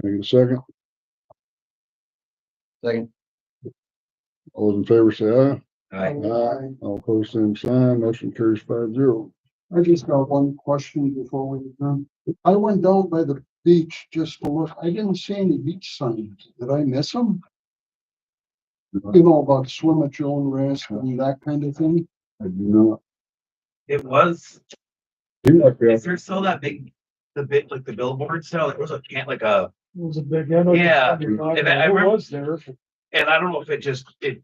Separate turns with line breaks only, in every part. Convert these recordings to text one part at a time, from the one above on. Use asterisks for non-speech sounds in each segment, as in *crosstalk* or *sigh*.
Can I get a second?
Second.
All those in favor say aye.
Uh,
Aye.
Aye. All opposed, same sign. Motion carries five zero.
I just got one question before we adjourn. I went down by the beach just to look. I didn't see any beach signs. Did I miss them? You know, about swim at your own risk and that kind of thing.
I do not.
It was,
You like
is
that?
there still that big, the bit, like the billboard style, there was a can, like a,
It was a big. I know
Yeah,
you're talking
and I- I
about. Who
remember-
was there?
and I don't know if it just, it.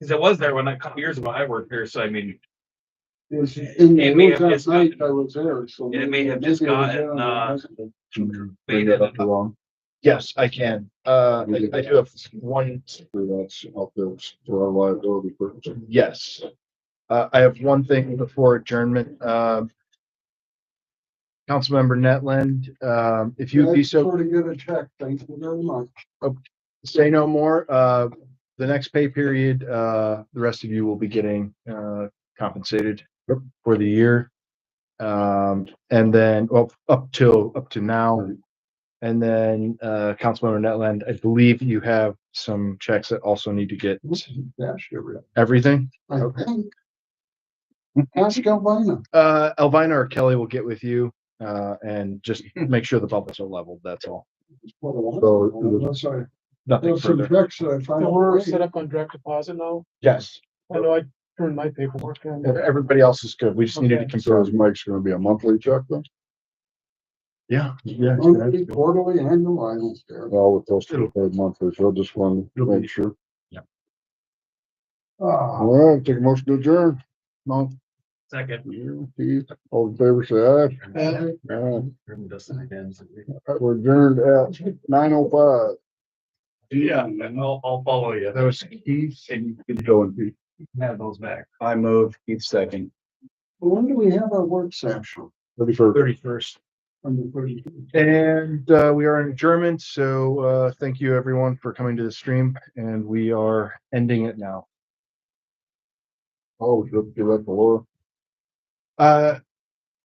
Cause it was there when I, a couple years ago I worked here, so I mean,
It was in the
It may have
woods
just
that night
gotten-
I was there, so.
it may
maybe-
have just
maybe I was
gotten,
there and I
uh,
wasn't.
made it up.
Wrong.
Yes, I can. Uh, I, I do have one,
That's out there for our liability purposes.
yes. Uh, I have one thing before adjournment, um. Councilmember Netland, um, if you'd be
That's
so,
Sort of get a check. Thank you very much.
say no more, uh, the next pay period, uh, the rest of you will be getting, uh, compensated for the year. Um, and then, well, up till, up to now. And then, uh, Councilmember Netland, I believe you have some checks that also need to get
Dash every,
everything.
I think. Ask Albina.
Uh, Elvina or Kelly will get with you, uh, and *laughs* just make sure the bubbles are leveled, that's all.
Oh,
So, it was-
Unless I,
Nothing
there's some
further.
checks that I find.
So we're set up on direct deposit now.
Yes,
I know I turned my paperwork in.
everybody else is good, we just needed to
Okay.
so
confirm.
is Mike's gonna be a monthly check then?
Yeah, yeah.
Monthly, quarterly, annual, I don't care.
Well, with those two paid monthly, so I just want to
It'll be-
make sure.
Ah,
All right, take a motion to adjourn. No.
Second.
you, Keith, All in favor say
Uh, *laughs*
and-
aye. All
Yeah,
right, We're adjourned at nine oh five.
I'll, I'll follow you.
That was Keith.
And you have those back.
I move, Keith second.
When do we have our work session?
Ready for
Thirty first.
On the thirty.
And, uh, we are in German, so, uh, thank you everyone for coming to the stream, and we are ending it now.
Oh, give that to Laura.
Uh,